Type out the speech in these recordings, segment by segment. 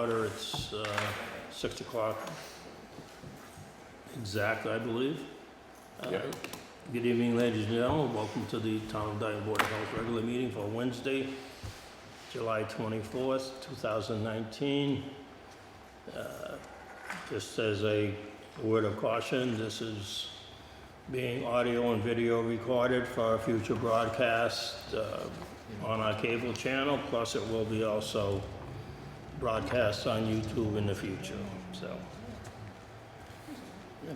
It's uh, 6 o'clock exactly, I believe. Uh, Yeah. Good evening, ladies and gentlemen. Welcome to the Town of Dyton Board of Health regular meeting for Wednesday, July 24th, 2019. Uh, Just as a word of caution, this is being audio and video recorded for future broadcast uh, on our cable channel, plus it will be also broadcast on YouTube in the future, so.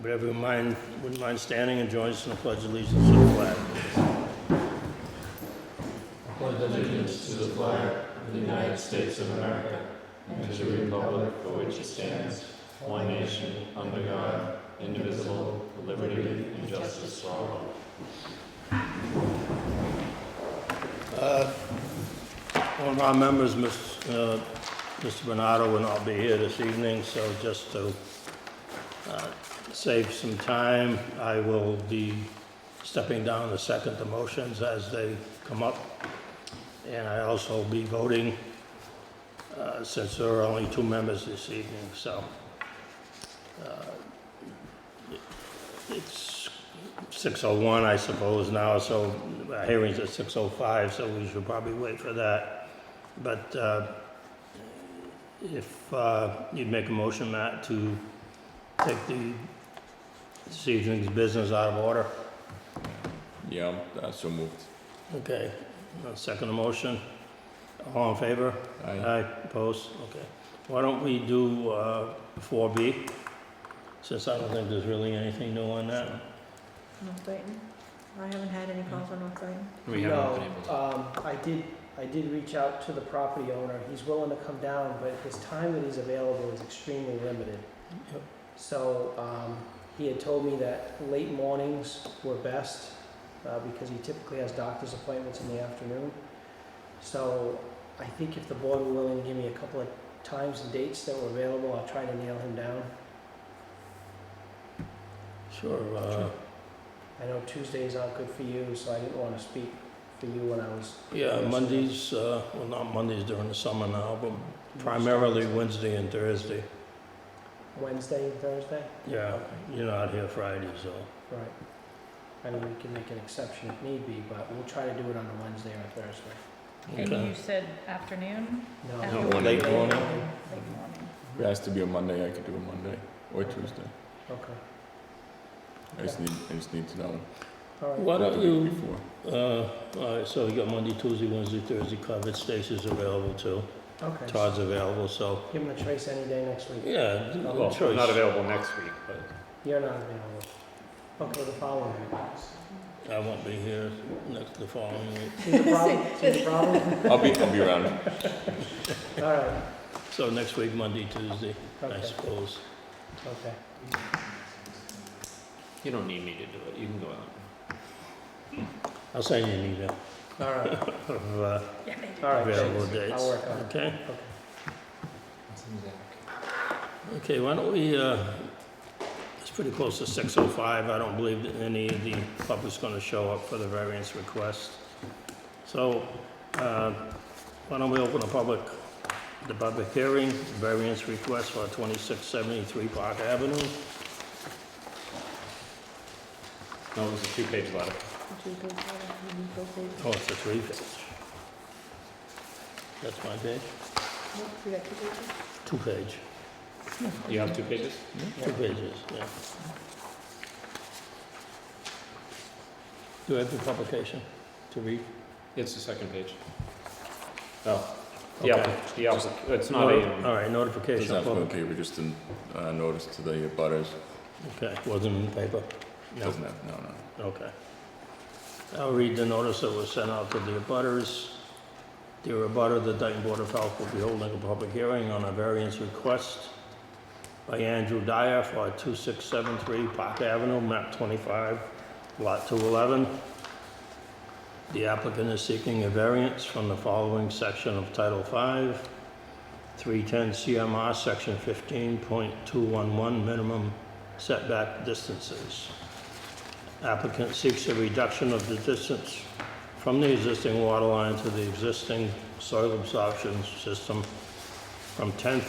But everyone mind, wouldn't mind standing and joining us in the pledge of allegiance to the flag. pledge allegiance to the flag of the United States of America and to the republic for which it stands, one nation, under God, indivisible, with liberty and justice for all. Uh, One of our members, Miss, uh, Mr. Bernardo, will not be here this evening, so just to uh, save some time, I will be stepping down to second the motions as they come up. And I also will be voting, uh, since there are only two members this evening, so. uh, it- It's 6:01, I suppose, now, so our hearing's at 6:05, so we should probably wait for that. But uh, if uh, you'd make a motion, Matt, to take the, this evening's business out of order. Yeah, that's so moved. Okay, I'll second the motion. All in favor? Aye. Aye, opposed, okay. Why don't we do uh, 4B, since I don't think there's really anything new on that. North Dayton? I haven't had any calls on North Dayton. We haven't been able to. Um, I did, I did reach out to the property owner. He's willing to come down, but his time that he's available is extremely limited. Yep. So, um, he had told me that late mornings were best, uh, because he typically has doctor's appointments in the afternoon. So I think if the board were willing to give me a couple of times and dates that were available, I'll try to nail him down. Sure, uh, I know Tuesdays aren't good for you, so I didn't wanna speak for you when I was. yeah, Yes. Mondays, uh, well, not Mondays during the summer now, but primarily Wednesday and Thursday. Wednesday and Thursday? Yeah, you're not here Friday, so, Right. I know we can make an exception if need be, but we'll try to do it on a Wednesday or a Thursday. And Okay. you said afternoon? No, Afternoon. Late Oh, morning. Late morning. If it has to be a Monday, I could do a Monday or Tuesday. okay, I just need, I just need to know. all right. why the don't week you, before. uh, all right, so you got Monday, Tuesday, Wednesday, Thursday covered, Stacy's available too, Okay, so Todd's available, so, give him a trace any day next week. yeah, good Well, choice. available next week, but. You're not available. Okay, the following week. I won't be here next, the following week. See the problem? See the problem? I'll be, I'll be around. All right, So next week, Monday, Tuesday, I okay, suppose. okay. You don't need me to do it, you can go out. I'll send you an email All right, of, uh, Yeah, they do. all right, available thanks. dates. I'll work on it. Okay? Okay. Okay, why don't we, uh, it's pretty close to 6:05. I don't believe that any of the public's going to show up for the variance request. So uh, why don't we open a public, the public hearing, variance request for 2673 Park Avenue? No, it was a two-page letter. Would you go for it? You can go for it. Oh, it's a three page. That's my page? Nope, we got two pages. Two page, You have two pages? two pages, yeah. Do I have the publication to read? It's the second page. Oh, yeah, Okay. the applic- it's not a, All right, It's notification. not of public- okay, we just didn't, uh, notice to the butters. Okay, wasn't in the paper? No, Doesn't have, no, no. okay. I'll read the notice that was sent out to the abutters. Dear abutter, the Dayton Board of Health will be holding a public hearing on a variance request by Andrew Dyer for 2673 Park Avenue, map 25, lot 211. The applicant is seeking a variance from the following section of Title V, 310 CMR, Section 15.211, minimum setback distances. Applicant seeks a reduction of the distance from the existing water line to the existing soil absorption system from 10